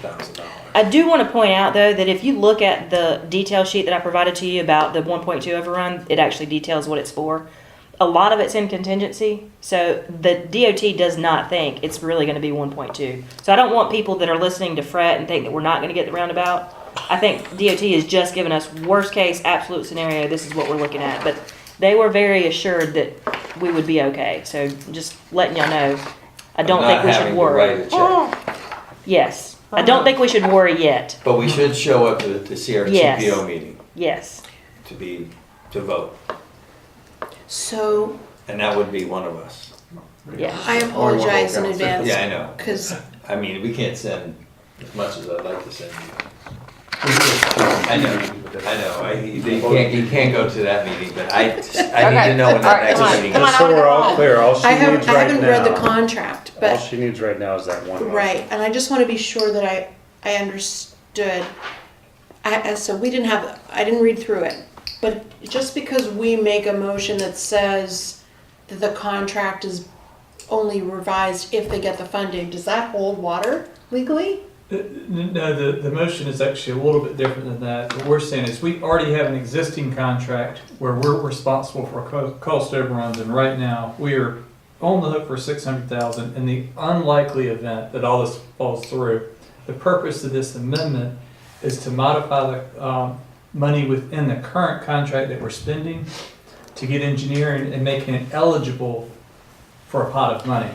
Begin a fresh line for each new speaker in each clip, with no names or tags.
thousand dollars.
I do want to point out, though, that if you look at the detail sheet that I provided to you about the 1.2 overrun, it actually details what it's for. A lot of it's in contingency, so the DOT does not think it's really going to be 1.2. So I don't want people that are listening to fret and think that we're not going to get the roundabout. I think DOT has just given us worst case, absolute scenario. This is what we're looking at, but they were very assured that we would be okay. So just letting y'all know, I don't think we should worry.
Not having to write a check,
Yes. I don't think we should worry yet.
but we should show up to to see our
Yes.
CPO meeting
Yes.
to be, to vote,
So
and that would be one of us.
Yeah.
I apologize in advance.
Yeah, I know.
Because
I mean, we can't send as much as I'd like to send you. I
I
know, I know, I, you can't, you can't go to that meeting, but I, just- I need
Okay.
to know when
All
that
right,
next
come on,
meeting
come
is.
on.
Just so we're all clear, all she
I haven't,
needs
I
right
haven't read the
now,
contract,
all
but,
she needs right now is that one. motion.
right, and I just want to be sure that I, I understood. I, I- so we didn't have, I didn't read through it, but just because we make a motion that says that the contract is only revised if they get the funding, does that hold water legally?
Uh, n- No, the, the motion is actually a little bit different than that. What we're saying is we already have an existing contract where we're responsible for co- cost overruns, and right now, we are on the hook for six hundred thousand in the unlikely event that all this falls through. The purpose of this amendment is to modify the, um, money within the current contract that we're spending to get engineering and making it eligible for a pot of money.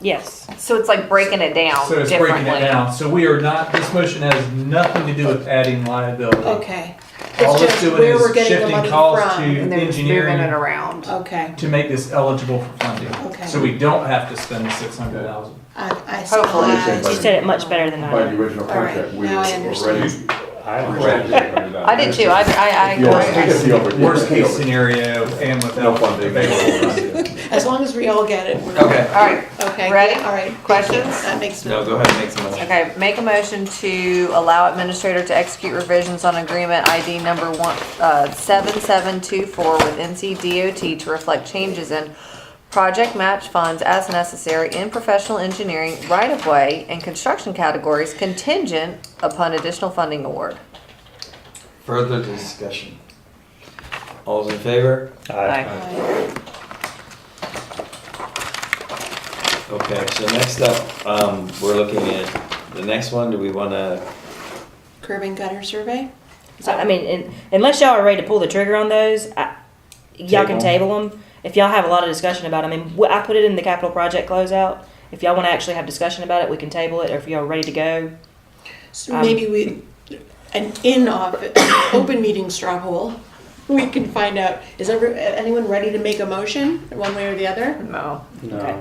Yes.
So it's like breaking it down
So it's
differently.
breaking it down. So we are not, this motion has nothing to do with adding liability.
Okay,
All
It's
it's
just
doing
where we're
is
getting the
shifting
money
costs to
from.
And they're just moving it
engineering
around.
okay,
to make this eligible for funding.
Okay.
So we don't have to spend the six hundred thousand.
I, I
Hopefully.
saw
She said it much better than
By the
I.
original
All
contract,
right,
we
now I
were already.
understand.
I don't
Correct.
I did too. I, I, I
If you always take it,
agree.
you already-
Worst case scenario and
No
without
funding.
available.
As long as we all get it, we're.
Okay,
All right.
Okay,
Ready?
all right. thank you.
Questions?
That makes.
no, go ahead and make some motion.
Okay, make a motion to allow administrator to execute revisions on agreement ID number one, uh, seven seven two four with NC DOT to reflect changes in project match funds as necessary in professional engineering, right-of-way, and construction categories contingent upon additional funding award.
Further discussion. All's in favor?
I-
Okay, so next up, um, we're looking at the next one, do we wanna,
Curb and gutter survey?
So, I mean, in- unless y'all are ready to pull the trigger on those, I, y'all can
Table.
table them. If y'all have a lot of discussion about, 'em. I mean, wh- I put it in the capital project closeout. If y'all want to actually have discussion about it, we can table it, or if y'all are ready to go.
So
Um,
maybe we, an in-office, open meeting straw poll. We can find out, is ever, anyone ready to make a motion, one way or the other?
No.
Okay.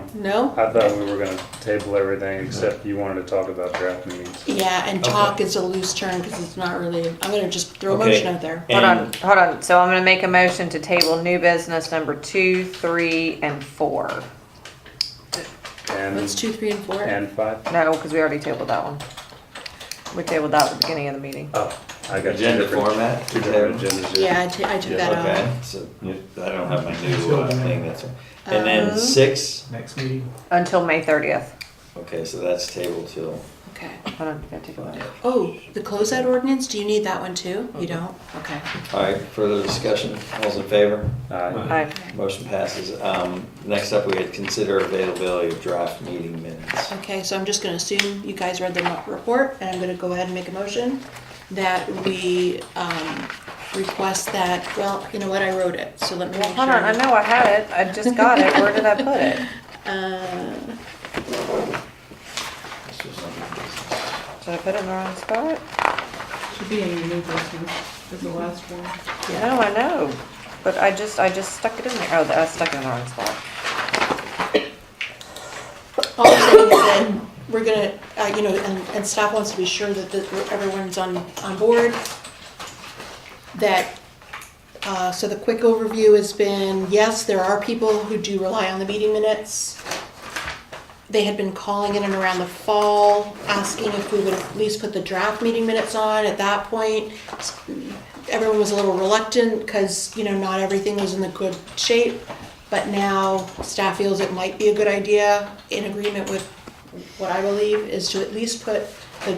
No?
No, I thought we were gonna table everything except you wanted to talk about draft meetings.
Yeah, and talk is a loose term because it's not really, I'm gonna just throw a
Okay.
motion out there.
Hold on,
and,
hold on. So I'm gonna make a motion to table new business number two, three, and four.
That's
And,
two, three, and four.
and five?
No, because we already tabled that one. We tabled that at the beginning of the meeting.
Oh, I got two
agenda
different,
format?
two different agendas. here.
Yeah, I ta- I took
Yeah,
that out.
Okay, so, you- I don't have my new uh, thing, that's, and then
Um,
six,
Next meeting.
Until May thirtieth.
okay, so that's table till.
Okay.
Hold on, gotta take a look.
Oh, the closeout ordinance, do you need that one too? You don't? Okay.
All right, further discussion, all's in favor?
Aye.
Aye.
Motion passes. Um, next up, we had consider availability of draft meeting minutes.
Okay, so I'm just gonna assume you guys read the mo- report, and I'm gonna go ahead and make a motion that we, um, request that, well, you know what, I wrote it, so let me
Well,
make
hold on, I
sure.
know I had it. I just got it. Where did I put it?
Uh,
This was under business.
Did I put it in the wrong spot?
Should be in your new business, is the last one.
No, I know. But I just, I just stuck it in there. Oh, I stuck it in the wrong spot.
All I'm saying is that we're gonna, uh, you know, and, and staff wants to be sure that the, everyone's on, on board. That, uh, so the quick overview has been, yes, there are people who do rely on the meeting minutes. They had been calling in and around the fall, asking if we would at least put the draft meeting minutes on at that point. s- Everyone was a little reluctant, cause, you know, not everything was in the good shape. But now staff feels it might be a good idea, in agreement with what I believe, is to at least put